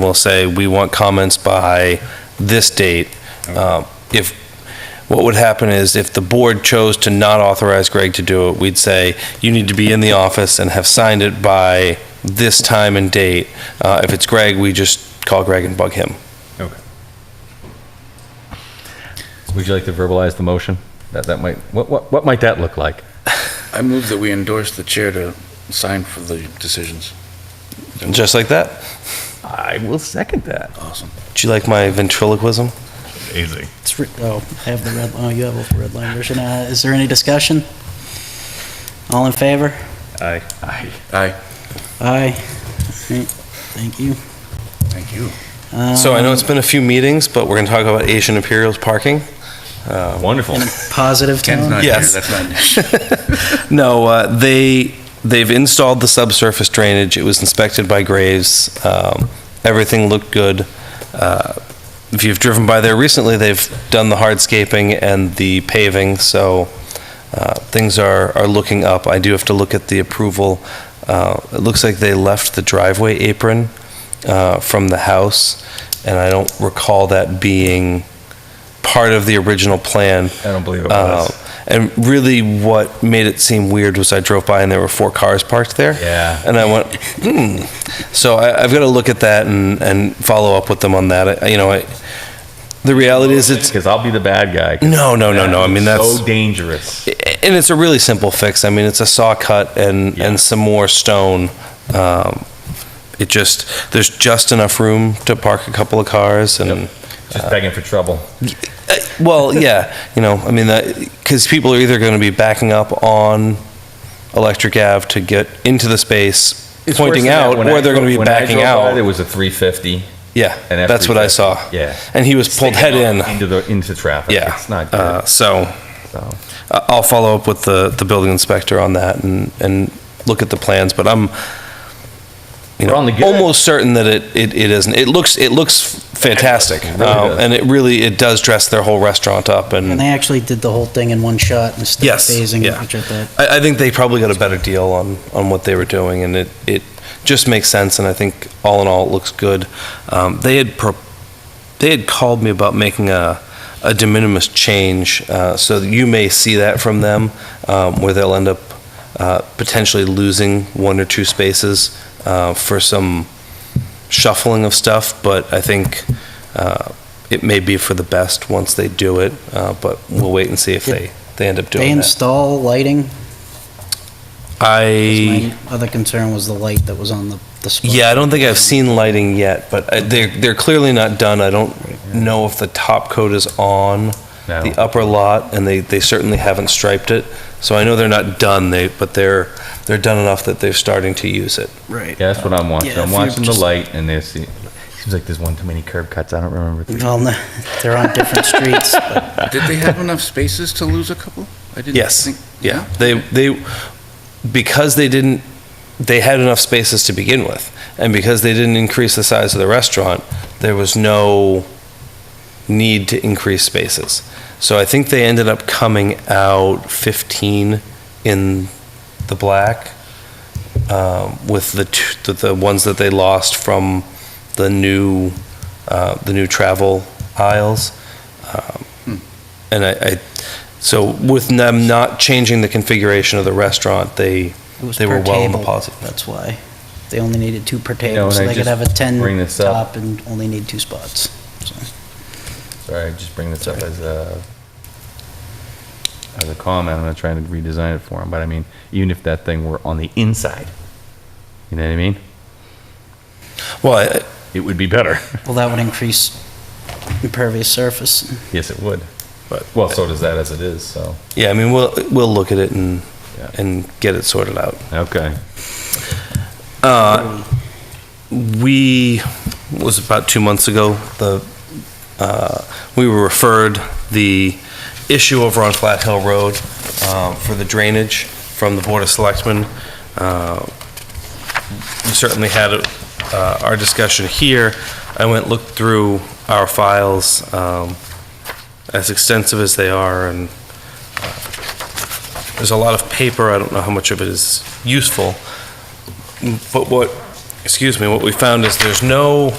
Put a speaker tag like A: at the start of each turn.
A: we'll say, we want comments by this date. Uh, If, what would happen is if the board chose to not authorize Greg to do it, we'd say, you need to be in the office and have signed it by this time and date. Uh, If it's Greg, we just call Greg and bug him.
B: Okay. Would you like to verbalize the motion? That, that might, what, what, what might that look like?
C: I move that we endorse the chair to sign for the decisions.
A: Just like that.
B: I will second that.
C: Awesome.
A: Do you like my ventriloquism?
D: Amazing.
E: It's, re- oh, I have the red, oh, you have the red line version. Uh, is there any discussion? All in favor?
B: Aye. Aye.
C: Aye.
E: Aye. Great, Thank you. Uh,
C: Thank you.
A: So I know it's been a few meetings, but we're going to talk about Asian Imperials parking.
B: Wonderful.
E: Positive
C: Ken's
E: tone?
C: not here,
A: Yes.
C: that's not an issue.
A: No, uh, they, they've installed the subsurface drainage. It was inspected by Graves. Um, Everything looked good. Uh, If you've driven by there recently, they've done the hardscaping and the paving, so uh, things are, are looking up. I do have to look at the approval. Uh, It looks like they left the driveway apron uh, from the house, and I don't recall that being part of the original plan.
B: I don't believe it
A: Uh,
B: was.
A: And really, what made it seem weird was I drove by and there were four cars parked there.
B: Yeah.
A: And I went, hmm. So I, I've got to look at that and, and follow up with them on that. I- You know, I, the reality is it's,
B: Because I'll be the bad guy. 'cause
A: no, no, no,
B: that
A: no. I
B: is
A: mean, that's,
B: So dangerous.
A: and it's a really simple fix. I mean, it's a saw cut and,
B: Yeah.
A: and some more stone. Um, it just, there's just enough room to park a couple of cars and.
B: Just begging for trouble.
A: Uh, Well, yeah, you know, I mean, because people are either going to be backing up on Electric Ave to get into the space,
B: It's worse
A: pointing
B: than that.
A: out,
B: When
A: or
B: I
A: they're going to
B: drove-
A: be
B: when I
A: backing
B: drove by,
A: out.
B: There was a 350.
A: yeah,
B: an
A: that's what I saw.
B: F350. Yeah.
A: and he was pulled head in.
B: Into the, into traffic.
A: Yeah,
B: It's not
A: Uh,
B: good.
A: so
B: So,
A: I- I'll follow up with the the building inspector on that and and look at the plans. But I'm, you
B: We're
A: know,
B: on the good.
A: almost certain that it, it it isn't. It looks it looks fantastic,
B: It really
A: Uh,
B: does.
A: and it really it does dress their whole restaurant up and.
E: And they actually did the whole thing in one shot instead of
A: Yes.
E: phasing,
A: yeah.
E: which I thought,
A: I, I think they probably got a better deal on, on what they were doing, and it, it just makes sense, and I think all in all, it looks good. Um, they had, pro- they had called me about making a, a de minimis change, uh, so you may see that from them, um, where they'll end up, uh, potentially losing one or two spaces, uh, for some shuffling of stuff, but I think, uh, it may be for the best once they do it, uh, but we'll wait and see if they, they end up doing
E: they
A: that.
E: install lighting? 'Cause
A: I,
E: My other concern was the light that was on the, the spot.
A: yeah, I don't think I've seen lighting yet, but I- they're, they're clearly not done. I don't know if the top coat is on
B: No.
A: the upper lot, and they, they certainly haven't striped it. So I know they're not done, they, but they're, they're done enough that they're starting to use it.
E: Right.
B: yeah, that's what I'm watching.
E: Yeah, if
B: I'm
E: you
B: watching the
E: just-
B: light and there's, it seems like there's one too many curb cuts. I don't remember. the-
E: Well, no, they're on different streets. but-
C: Did they have enough spaces to lose a couple? I didn't
A: Yes.
C: think-
A: Yeah, they, they, because they didn't, they had enough spaces to begin with, and because they didn't increase the size of the restaurant, there was no need to increase spaces. So I think they ended up coming out 15 in the black um, with the, t- the- the ones that they lost from the new, uh, the new travel aisles. Um, And I, I, so with them not changing the configuration of the restaurant, they,
E: It was
A: They were
E: per
A: well in the
E: table,
A: positive.
E: That's why. They only needed two per
B: know,
E: table,
B: and
E: so
B: I
E: they could
B: just
E: have a
B: bring
E: 10
B: this up.
E: top and only need two spots. so.
B: Sorry, I just bring this up as a, as a comment, I'm not trying to redesign it for him, but I mean, even if that thing were on the inside, you know what I mean?
A: well, I-
B: It would be better.
E: Well, that would increase impervious surface.
B: Yes, it would. But, well, so does that as it is, so.
A: yeah, I mean, we'll, we'll look at it and,
B: Yeah.
A: and get it sorted out.
B: Okay.
A: we it was about two months ago the uh, we were referred the issue over on Flat Hill Road um, for the drainage from the Board of Selectmen. Uh, we certainly had uh, our discussion here. I went looked through our files um, as extensive as they are, and uh, there's a lot of paper. I don't know how much of it is useful, but what excuse me, what we found is there's no